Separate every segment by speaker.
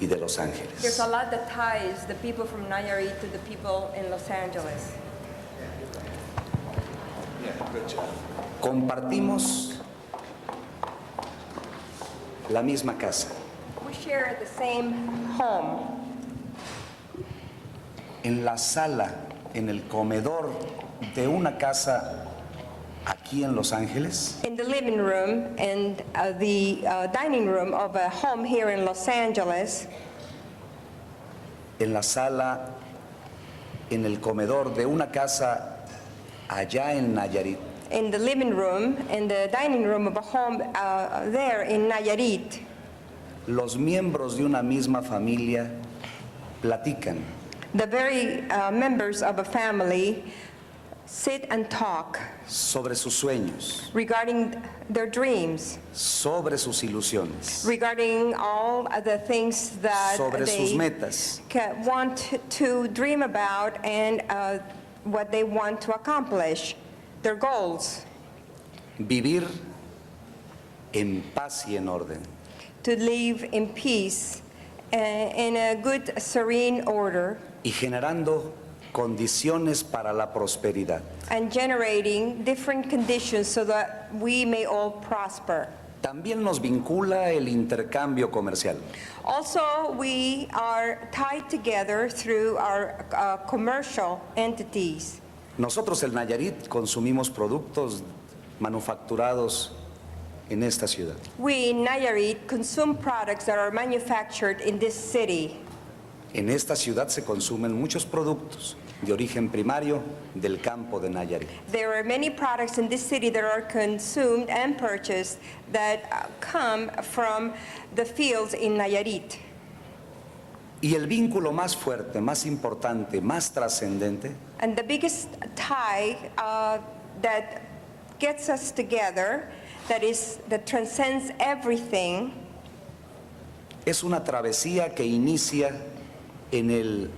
Speaker 1: y de Los
Speaker 2: There's
Speaker 1: Ángeles.
Speaker 2: a lot that ties the people from Nayarit to the people in Los Angeles.
Speaker 1: Compartimos la misma casa.
Speaker 2: We share the same home.
Speaker 1: En la sala, en el comedor de una casa aquí en Los Ángeles,
Speaker 2: In the living room and uh, the uh, dining room of a home here in Los Angeles,
Speaker 1: en la sala, en el comedor de una casa allá en Nayarit,
Speaker 2: in the living room and the dining room of a home uh, there in Nayarit,
Speaker 1: los miembros de una misma familia platican,
Speaker 2: the very uh, members of a family sit and talk
Speaker 1: sobre sus sueños,
Speaker 2: regarding their dreams,
Speaker 1: sobre sus ilusiones,
Speaker 2: regarding all of the things that
Speaker 1: sobre sus
Speaker 2: they
Speaker 1: metas.
Speaker 2: ca- want to dream about and uh, what they want to accomplish, their goals,
Speaker 1: Vivir en paz y en orden.
Speaker 2: to live in peace uh, in a good, serene order,
Speaker 1: y generando condiciones para la prosperidad,
Speaker 2: and generating different conditions so that we may all prosper.
Speaker 1: también nos vincula el intercambio comercial.
Speaker 2: Also, we are tied together through our uh, commercial entities.
Speaker 1: Nosotros el Nayarit consumimos productos manufacturados en esta ciudad.
Speaker 2: We in Nayarit consume products that are manufactured in this city.
Speaker 1: En esta ciudad se consumen muchos productos de origen primario del campo de Nayarit.
Speaker 2: There are many products in this city that are consumed and purchased that uh, come from the fields in Nayarit.
Speaker 1: Y el vínculo más fuerte, más importante, más trascendente
Speaker 2: And the biggest tie uh, that gets us together, that is, that transcends everything,
Speaker 1: es una travesía que inicia en el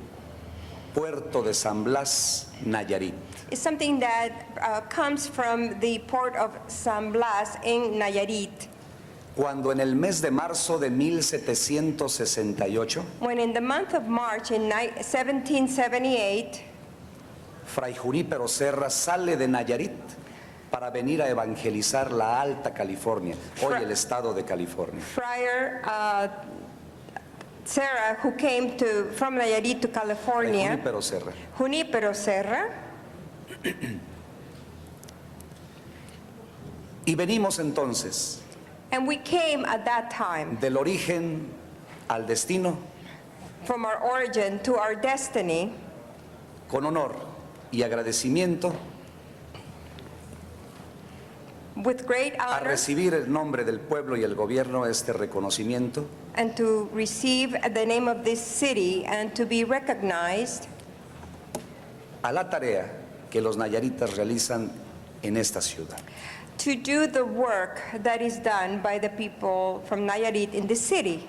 Speaker 1: puerto de San Blas, Nayarit.
Speaker 2: is something that uh, comes from the port of San Blas in Nayarit.
Speaker 1: cuando en el mes de marzo de 1768,
Speaker 2: When in the month of March in ni- 1778,
Speaker 1: Fray Junípero Serra sale de Nayarit para venir a evangelizar la Alta California, hoy el estado de California.
Speaker 2: Friar uh, Serra, who came to, from Nayarit to
Speaker 1: Fray
Speaker 2: California,
Speaker 1: Junípero Serra.
Speaker 2: Junípero Serra,
Speaker 1: Y venimos entonces
Speaker 2: and we came at that time
Speaker 1: del origen al destino
Speaker 2: from our origin to our destiny
Speaker 1: con honor y agradecimiento
Speaker 2: with great
Speaker 1: a
Speaker 2: honor
Speaker 1: recibir el nombre del pueblo y el gobierno este reconocimiento
Speaker 2: and to receive the name of this city and to be recognized
Speaker 1: a la tarea que los nayaritas realizan en esta ciudad.
Speaker 2: to do the work that is done by the people from Nayarit in this city.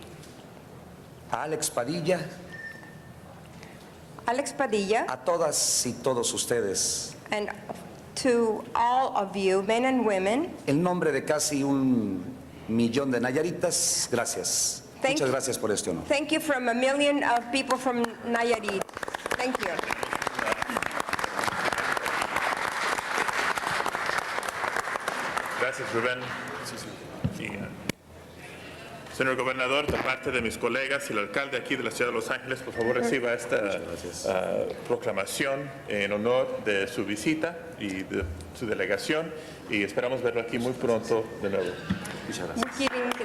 Speaker 1: A Alex Padilla,
Speaker 2: Alex Padilla,
Speaker 1: a todas y todos ustedes
Speaker 2: and to all of you, men and women,
Speaker 1: En nombre de casi un millón de Nayaritas, gracias.
Speaker 2: Thank
Speaker 1: Muchas
Speaker 2: you.
Speaker 1: gracias por este honor.
Speaker 2: Thank you from a million of people from Nayarit. Thank you.
Speaker 3: Gracias, Rubén. Y, eh, Señor gobernador, de parte de mis colegas y el alcalde aquí de la ciudad de Los Ángeles, por favor reciba esta ah, proclamación en honor de su visita y de su delegación y esperamos verlo aquí muy pronto de nuevo.
Speaker 2: We're giving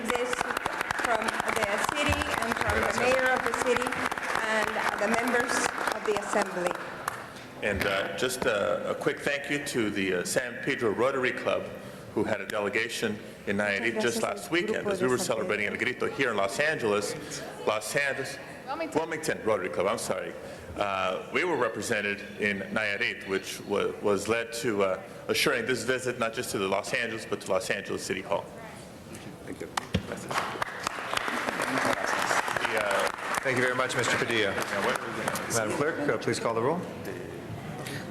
Speaker 2: this from the city and from the mayor of the city and the members of the assembly.
Speaker 3: And uh, just uh, a quick thank you to the uh, San Pedro Rotary Club, who had a delegation in Nayarit just last weekend, as we were celebrating El Grito here in Los Angeles, Los Angeles, Wilmington Rotary Club, I'm sorry. Uh, We were represented in Nayarit, which wa- was led to uh, assuring this visit not just to the Los Angeles, but to Los Angeles City Hall.
Speaker 4: Thank you very much, Mr. Padilla. Madam Clerk, uh, please call the roll.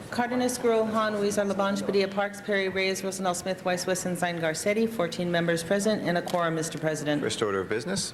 Speaker 5: Cardenas, Gruel, Han, Weezer, Labange, Padilla, Parks, Perry, Reyes, Rosendahl, Smith, Weiss, Wesson, Zine, Garcetti, 14 members present, and a quorum, Mr. President.
Speaker 4: First order of business.